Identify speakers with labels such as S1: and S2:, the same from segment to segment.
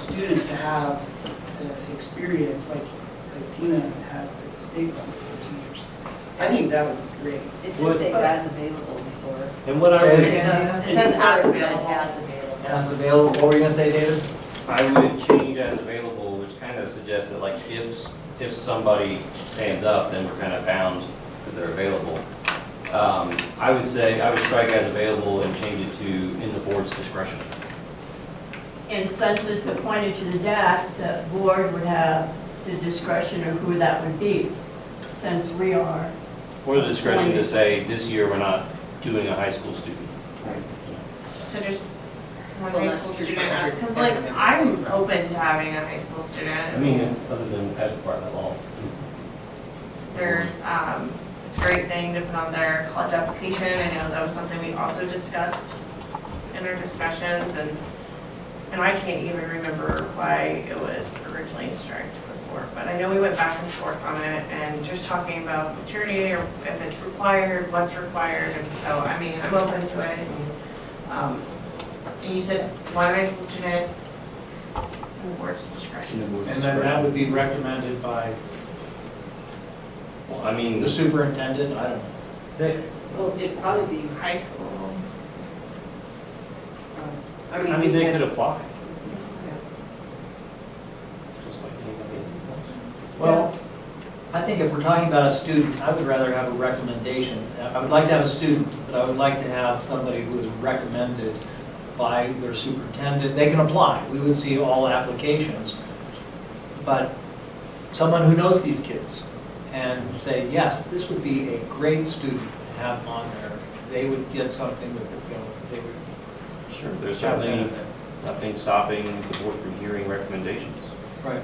S1: student to have uh, experience like like Tina had at the state level for two years. I think that would be great.
S2: It
S3: What-
S2: did say as available before.
S3: And what
S4: So-
S3: I
S2: It
S3: would,
S2: does- it says as available. As available.
S4: As available, what were you gonna say, David?
S3: I would change as available, which kind of suggests that like if, if somebody stands up, then we're kind of bound because they're available. Um, I would say, I would strike as available and change it to in the board's discretion.
S5: And since it's appointed to the DAC, the board would have the discretion of who that would be, since we are.
S3: Or the discretion to say, this year we're not doing a high school student.
S6: So just one
S1: Well,
S6: high
S1: that's
S6: school
S1: true for
S6: student,
S1: every-
S6: because like,
S1: everything.
S6: I'm open to having a high school
S3: I
S6: student.
S3: mean, other than as part of that law.
S6: There's, um, it's a great thing to put on their college application. I know that was something we also discussed in our discussions and, and I can't even remember why it was originally strict before. But I know we went back and forth on it and just talking about maturity or if it's required, what's required. And so, I mean, I'm open to it. And, um, and you said one high school student, and the board's discretion.
S4: And then that would be recommended by
S3: Well, I mean,
S4: the superintendent, I don't know.
S3: they-
S2: Well, it'd probably be,
S6: High school.
S2: um, I
S3: I
S2: mean,
S3: mean,
S2: we
S3: they
S2: had-
S3: could apply. Just like anybody else.
S4: Well, I think if we're talking about a student, I would rather have a recommendation. I would like to have a student, but I would like to have somebody who is recommended by their superintendent. They can apply, we would see all applications. But someone who knows these kids and say, yes, this would be a great student to have on there. They would get something that, would, you know, they would.
S3: Sure, there's
S4: have
S3: certainly
S4: benefit.
S3: nothing stopping the board from hearing recommendations.
S4: Right.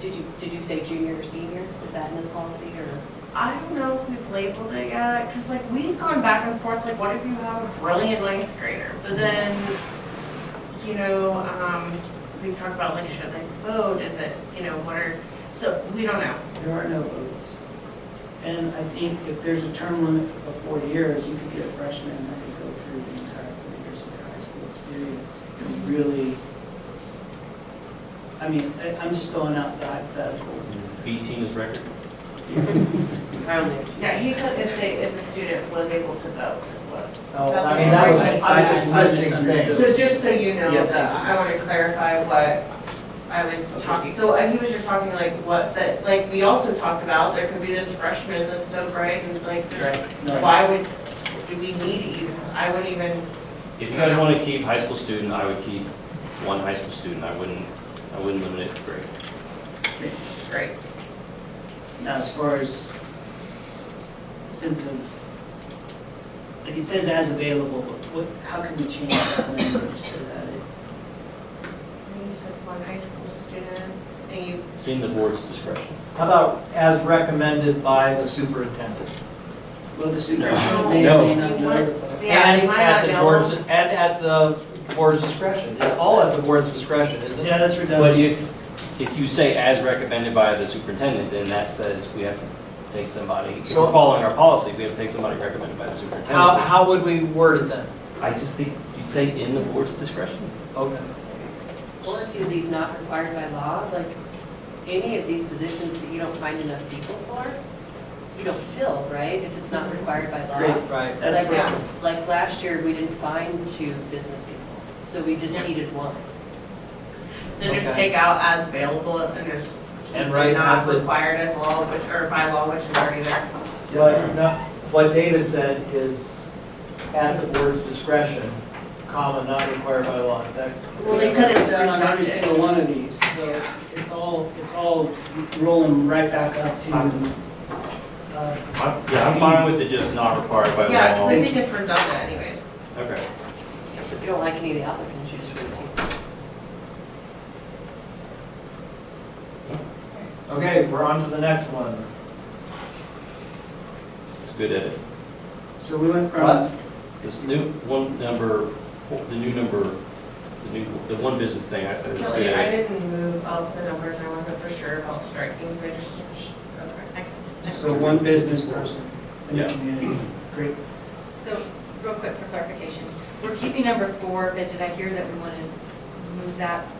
S2: Did you, did you say junior or senior? Is that in this policy or?
S6: I don't know if we've labeled it yet, because like we've gone back and forth, like what if you have a brilliant ninth grader? But then, you know, um, we talked about like should they vote and that, you know, what are, so we don't know.
S1: There are no votes. And I think if there's a term limit of four years, you could get a freshman that could go through the entire four years of their high school experience and really, I mean, I- I'm just throwing out the hypotheticals.
S3: B team is record.
S6: Yeah, he said if they, if the student was able to vote is what.
S4: No, Oh, I mean, that was, I was just missing things.
S6: So just so you know,
S1: Yeah.
S6: that I want to clarify what I was talking, so uh, he was just talking like what, that, like, we also talked about, there could be this freshman that's so bright and like, there's
S1: No.
S6: Why would, do we need it even? I wouldn't even,
S3: If you guys want to keep high school student, I would keep one high school student. I wouldn't, I wouldn't limit it to grade.
S6: great.
S1: Now, as far as sense of, like it says as available, but what, how can we change that language so that it,
S6: You said one high school student, and you,
S3: It's in the board's discretion.
S4: How about as recommended by the superintendent?
S1: well, the superintendent may
S3: No.
S1: or may not
S6: You
S1: know.
S6: want-
S1: but-
S6: yeah, they
S4: And
S6: might
S4: at
S6: not
S4: the
S6: know.
S4: board's- And at the board's discretion, it's all at the board's discretion, isn't
S1: Yeah,
S4: it?
S1: that's
S3: But
S1: redundant.
S3: if, if you say as recommended by the superintendent, then that says we have to take somebody, if we're following our policy, we have to take somebody recommended by the
S4: How,
S3: superintendent.
S4: how would we word it then?
S3: I just think you'd say in the board's discretion.
S4: Okay.
S2: Or if you leave not required by law, like any of these positions that you don't find enough people for, you don't fill, right? If it's not required by law.
S1: Great.
S4: Right.
S1: That's
S2: Like,
S1: right.
S2: like last year, we didn't find two business people, so we just needed one.
S6: So just
S4: Okay.
S6: take out as available and just keep
S4: And right
S6: the not
S4: now, the-
S6: required as law, which, or by law, which is already there.
S4: What, no, what David said is at the board's discretion, comma, not required by law, is that?
S6: Well, they said it's
S1: Down on every
S6: redundant.
S1: single one of these, so
S6: Yeah.
S1: it's all, it's all rolling right back up to, uh,
S3: I'm- Yeah, I'm fine with it just not required by
S6: Yeah, because
S3: law.
S6: I think it's redundant anyways.
S3: Okay.
S2: If you don't like any of the applicants, you just rotate.
S4: Okay, we're on to the next one.
S3: It's a good edit.
S1: so we went
S4: What?
S1: from,
S3: This new one number, the new number, the new, the one business thing, I think it's
S6: Kelly, I
S3: good.
S6: didn't move up the numbers, I wasn't for sure about striking, so I just, sh- okay.
S1: so one business person in the
S3: Yeah.
S1: community, great.
S7: So, real quick for clarification, we're keeping number four, but did I hear that we want to move that